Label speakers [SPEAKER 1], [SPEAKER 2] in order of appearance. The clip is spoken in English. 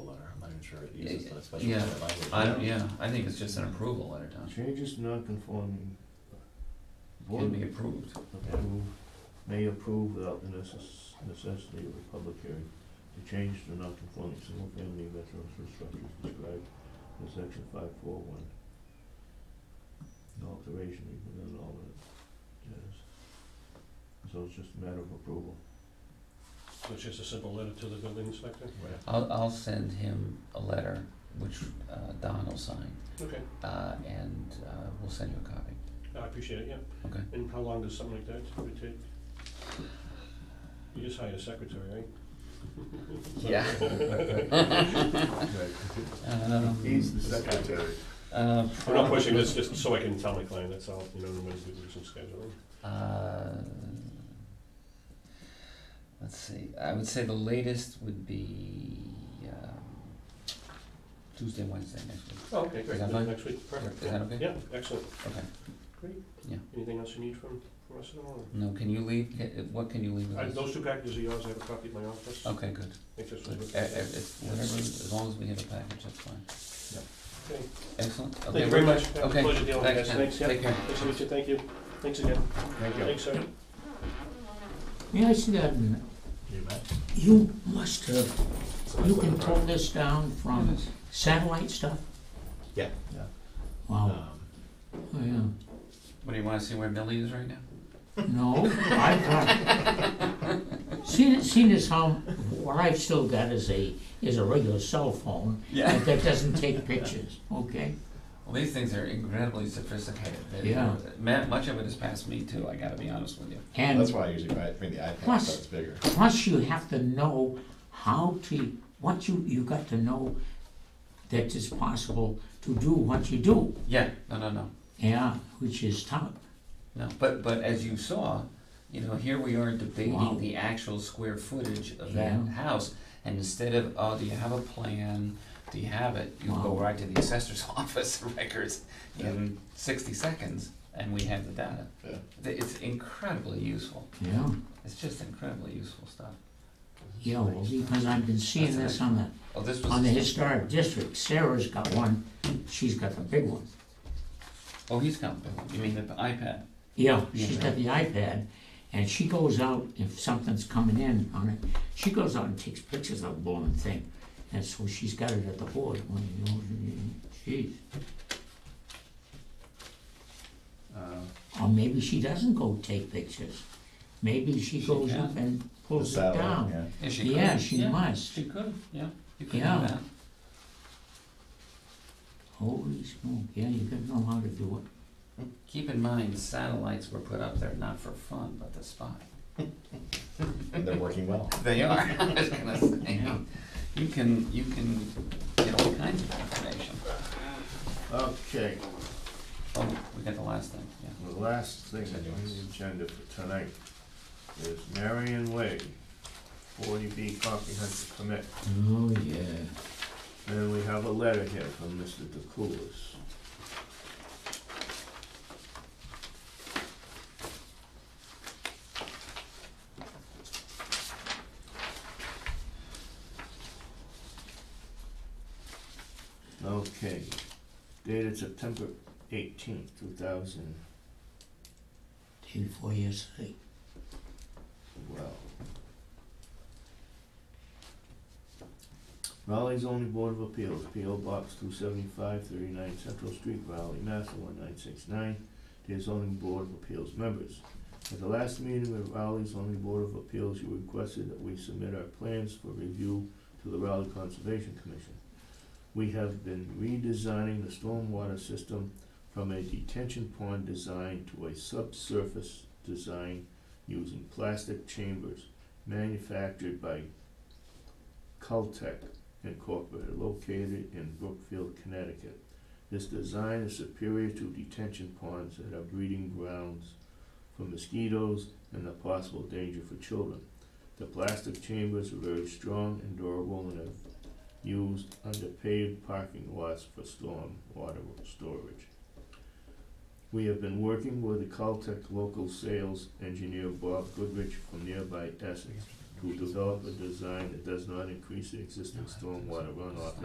[SPEAKER 1] uses the special
[SPEAKER 2] Yeah.
[SPEAKER 1] permit language.
[SPEAKER 2] I, yeah, I think it's just an approval letter, Tom.
[SPEAKER 3] Changes non-conforming.
[SPEAKER 2] Can
[SPEAKER 3] Board
[SPEAKER 2] be approved.
[SPEAKER 3] approve, may approve without the necess- necessity of a public hearing to change the non-conforming single-family residential structures described in section five four one. No alteration even in all of it, yes. So it's just a matter of approval.
[SPEAKER 4] So it's just a simple letter to the building inspector?
[SPEAKER 1] Right.
[SPEAKER 2] I'll, I'll send him a letter, which uh, Don will sign,
[SPEAKER 4] Okay,
[SPEAKER 2] uh, and uh, we'll send you a copy.
[SPEAKER 4] I appreciate it, yeah.
[SPEAKER 2] Okay.
[SPEAKER 4] And how long does something like that typically take? You just hired a secretary, right?
[SPEAKER 2] Um,
[SPEAKER 5] He's the secretary.
[SPEAKER 2] uh,
[SPEAKER 4] I'm not pushing
[SPEAKER 2] probably-
[SPEAKER 4] this, just so I can tell my client, that's all, you know, when we do some scheduling.
[SPEAKER 2] Uh, Let's see, I would say the latest would be, um, Tuesday, Wednesday next week.
[SPEAKER 4] Oh, okay,
[SPEAKER 2] Is
[SPEAKER 4] great,
[SPEAKER 2] that
[SPEAKER 4] Then
[SPEAKER 2] fine?
[SPEAKER 4] next week, perfect.
[SPEAKER 2] Is that okay?
[SPEAKER 4] Yeah, excellent,
[SPEAKER 2] Okay,
[SPEAKER 4] great.
[SPEAKER 2] Yeah.
[SPEAKER 4] Anything else you need from, from us at all?
[SPEAKER 2] no, can you leave, ca- what can you leave with
[SPEAKER 4] I-
[SPEAKER 2] us?
[SPEAKER 4] Those two packages are yours, I have a copy at my office.
[SPEAKER 2] Okay, good,
[SPEAKER 4] I think this was
[SPEAKER 2] Oh. good,
[SPEAKER 4] with-
[SPEAKER 2] E- e- it's whatever, as long as we have a package, that's fine.
[SPEAKER 4] Okay.
[SPEAKER 2] Excellent, okay.
[SPEAKER 4] Thank you very much. Have a
[SPEAKER 2] Okay,
[SPEAKER 4] pleasure dealing with
[SPEAKER 2] thanks,
[SPEAKER 4] you guys.
[SPEAKER 2] Ken.
[SPEAKER 4] Thanks, yeah.
[SPEAKER 2] Take care.
[SPEAKER 4] Nice to meet you, thank you. Thanks again.
[SPEAKER 3] Thank
[SPEAKER 4] Thanks, sir.
[SPEAKER 6] May I see that minute?
[SPEAKER 1] You bet.
[SPEAKER 6] You must have,
[SPEAKER 1] So
[SPEAKER 6] you
[SPEAKER 1] that's
[SPEAKER 6] can
[SPEAKER 1] what-
[SPEAKER 6] pull this down from
[SPEAKER 2] Yes.
[SPEAKER 6] satellite stuff?
[SPEAKER 1] Yeah.
[SPEAKER 3] Yeah.
[SPEAKER 6] Wow,
[SPEAKER 1] Um,
[SPEAKER 6] oh, yeah.
[SPEAKER 2] What, do you wanna see where Millie is right now?
[SPEAKER 6] No, I've got, seen, seen as how, what I've still got is a, is a regular cell phone, but that doesn't take pictures, okay?
[SPEAKER 2] Well, these things are incredibly sophisticated, They-
[SPEAKER 6] Yeah.
[SPEAKER 2] ma- much of it is past me too, I gotta be honest with you.
[SPEAKER 1] That's
[SPEAKER 6] And
[SPEAKER 1] why I usually buy- bring the iPad,
[SPEAKER 6] Plus-
[SPEAKER 1] so it's bigger.
[SPEAKER 6] plus you have to know how to, what you, you got to know that it's possible to do what you do,
[SPEAKER 2] Yeah, no, no, no.
[SPEAKER 6] yeah, which is tough.
[SPEAKER 2] No, but, but as you saw, you know, here we are
[SPEAKER 6] Wow.
[SPEAKER 2] debating the actual square footage of that
[SPEAKER 6] Yeah.
[SPEAKER 2] house. And instead of, oh, do you have a plan? Do you have it? You go
[SPEAKER 6] Wow.
[SPEAKER 2] right to the assessor's office records in sixty seconds and we have the data.
[SPEAKER 1] Yeah.
[SPEAKER 2] Th- It's incredibly useful.
[SPEAKER 6] Yeah.
[SPEAKER 2] It's just incredibly useful stuff.
[SPEAKER 6] Yeah, well, because I've been seeing this on the,
[SPEAKER 2] Oh, this
[SPEAKER 6] on the
[SPEAKER 2] was,
[SPEAKER 6] historic district, Sarah's got one, she's got the big one.
[SPEAKER 2] oh, he's got, you mean the iPad?
[SPEAKER 6] Yeah, she's got the iPad, and she goes out, if something's coming in on it, she goes out and takes pictures of the blown thing. And so she's got it at the board, when you know, geez,
[SPEAKER 1] Uh,
[SPEAKER 6] or maybe she doesn't go take pictures. Maybe she
[SPEAKER 2] She
[SPEAKER 6] goes
[SPEAKER 2] can.
[SPEAKER 6] up and
[SPEAKER 1] The
[SPEAKER 6] pulls it
[SPEAKER 1] satellite,
[SPEAKER 6] down.
[SPEAKER 1] yeah.
[SPEAKER 2] Yeah, she could.
[SPEAKER 6] Yeah, she must,
[SPEAKER 2] She could, yeah. You could do
[SPEAKER 6] Yeah.
[SPEAKER 2] that.
[SPEAKER 6] holy smoke, yeah, you gotta know how to do it.
[SPEAKER 2] Keep in mind, satellites were put up there not for fun, but to spy.
[SPEAKER 1] And they're working well.
[SPEAKER 2] They are. I was gonna say.
[SPEAKER 6] Yeah.
[SPEAKER 2] You can, you can get all kinds of information.
[SPEAKER 3] Okay,
[SPEAKER 2] Oh, we got the last thing, yeah.
[SPEAKER 3] the last thing on the agenda for tonight is Marion Way, forty B comprehensive permit.
[SPEAKER 6] Oh, yeah.
[SPEAKER 3] And we have a letter here from Mr. DeCoulis. Okay, dated September eighteenth, two thousand
[SPEAKER 6] Day before yesterday.
[SPEAKER 3] Well. Raleigh zoning board of appeals, P O box two seventy-five thirty-nine Central Street, Raleigh, Mass one nine six nine. Dear zoning board of appeals members, at the last meeting with Raleigh zoning board of appeals, you requested that we submit our plans for review to the Raleigh Conservation Commission. We have been redesigning the stormwater system from a detention pond design to a subsurface design using plastic chambers manufactured by Cultec Incorporated, located in Brookfield, Connecticut. This design is superior to detention ponds that are breeding grounds for mosquitoes and a possible danger for children. The plastic chambers are very strong and durable and are used under paved parking lots for storm water storage. We have been working with the Caltech local sales engineer Bob Goodrich from nearby Essex to develop a design that does not increase the existing stormwater runoff